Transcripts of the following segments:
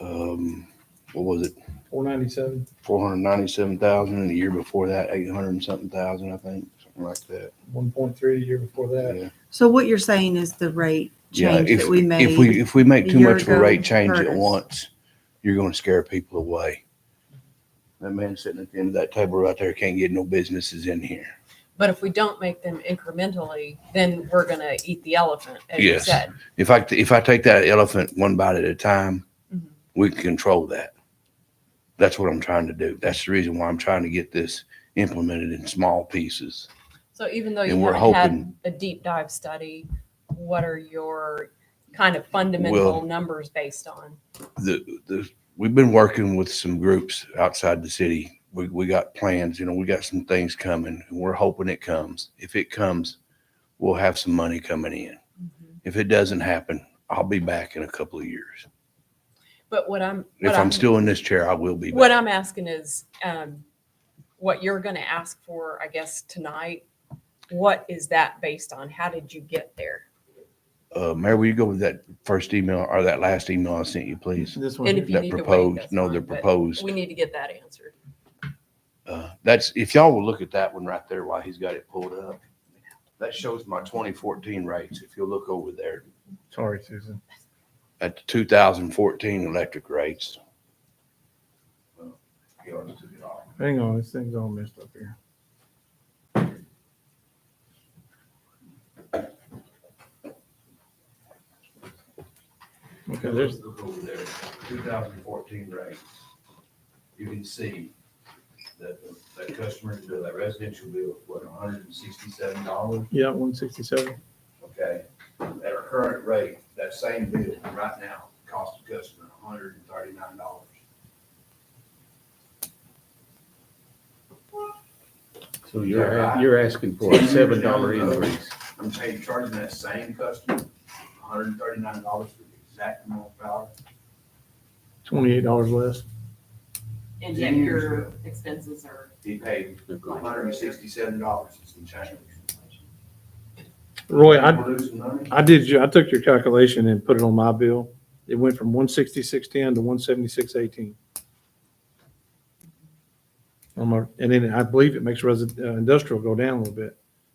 um, what was it, Four ninety-seven. four hundred ninety-seven thousand, and the year before that, eight hundred and something thousand, I think, something like that. One point three the year before that. Yeah. So what you're saying is the rate Yeah, change if, that we made. if we, if we make a too year much of a ago rate change hurt at us. once, you're gonna scare people away. That man sitting at the end of that table right there can't get no businesses in here. But if we don't make them incrementally, then we're gonna eat the elephant, as you Yes. said. If I, if I take that elephant one bite at a time, Mhm. we can control that. That's what I'm trying to do. That's the reason why I'm trying to get this implemented in small pieces. So even though you And we're haven't had hoping- a deep dive study, what are your kind of fundamental Well- numbers based on? the, the, we've been working with some groups outside the city. We, we got plans, you know, we got some things coming and we're hoping it comes. If it comes, we'll have some money coming in. If it doesn't happen, I'll be back in a couple of years. But what I'm If what I'm still in this chair, I will be what back. I'm asking is um, what you're gonna ask for, I guess, tonight. What is that based on? How did you get there? Uh, Mayor, will you go with that first email or that last email I sent you, please? This And one, if you That need to wait, proposed, that's no, they're fine, but proposed. We need to get that answered. Uh, that's, if y'all will look at that one right there while he's got it pulled up. That shows my twenty fourteen rates. If you'll look over there. sorry, Susan. at the 2014 electric rates. Well, Hang on, this thing's all messed up here. Okay, there's, look over there, 2014 rates. You can see that that customer's bill, that residential bill, what, $167? yeah, one sixty-seven. Okay, at our current rate, that same bill right now costs the customer $139. So Yeah, you're, right. you're asking for a seven dollar Yeah. increase. I'm saying you're charging that same customer $139 for the exact amount of power. Twenty-eight dollars less. And yet your expenses are He paid hundred and sixty-seven dollars and some change. Roy, I, We're losing money? I did you, I took your calculation and put it on my bill. It went from one sixty-six ten to one seventy-six eighteen. On my, and then I believe it makes resi- uh, industrial go down a little bit,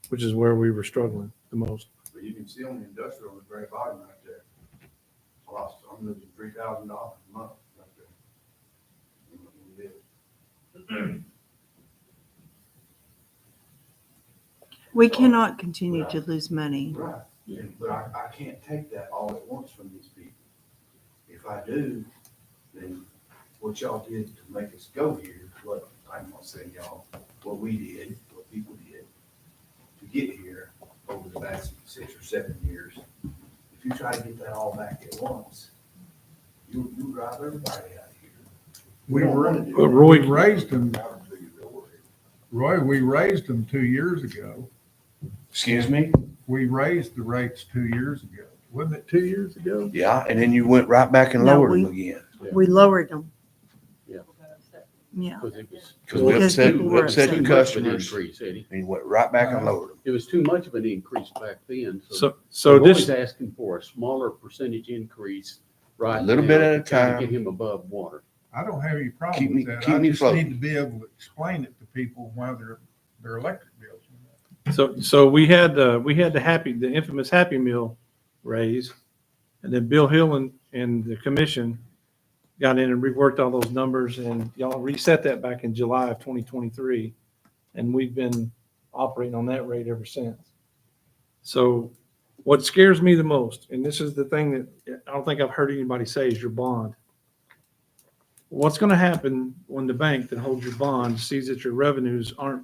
which is where we were struggling the most. But you can see on the industrial, on the very bottom right there. I Lost, I'm losing three thousand dollars a month right there. We cannot continue to lose money. Right, and- but I, I can't take that all at once from these people. If I do, then what y'all did to make us go here, what, I'm not saying y'all, what we did, what people did to get here over the last six or seven years, if you try to get that all back at once, you, you drive everybody out of here. We don't wanna do But it. Roy, We raised them, Excuse Roy, we raised them two years ago. me? We raised the rates two years ago. Wasn't it two years ago? Yeah, and then you went right back and No, lowered them we- again. We lowered them. Yeah. Yeah. Because it was. Cause we Because upset, people we were upset Too the much of an customers. Increase, Eddie. And he went right back and lowered them. It was too much of an increase back then. So, so We're this, always asking for a smaller percentage increase right A little bit now at a to try to time. Get him above water. I don't have any Keep problem me- with that. keep I me just floating. need to be able to explain it to people why their, their electric bills. went up. so, so we had, uh, we had the happy, the infamous Happy Meal raise. And then Bill Hill and, and the commission got in and reworked all those numbers and y'all reset that back in July of twenty twenty-three. And we've been operating on that rate ever since. So what scares me the most, and this is the thing that I don't think I've heard anybody say, is your bond. What's gonna happen when the bank that holds your bond sees that your revenues aren't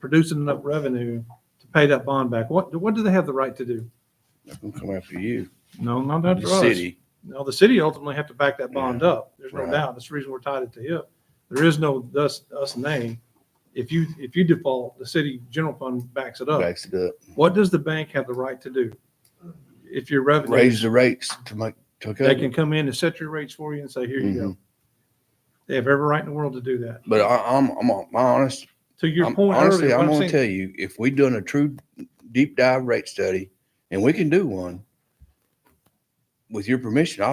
producing enough revenue to pay that bond back? What, what do they have the right to do? They're gonna come after you, No, not after the us. city. Now, the city ultimately have to back that bond up. There's no Right. doubt. That's the reason we're tied at the hip. There is no thus, us nay. If you, if you default, the city general fund backs it up. Backs it up. What does the bank have the right to do? If your revenue, Raise the rates to make, to they cover. can come in and set your rates for you and say, here you go. They have every right in the world to do that. Mm-hmm. But I, I'm, I'm, on- my honest, To your I'm- point honestly, earlier, what I'm I'm gonna saying- tell you, if we done a true deep dive rate study, and we can do one, with your permission, I,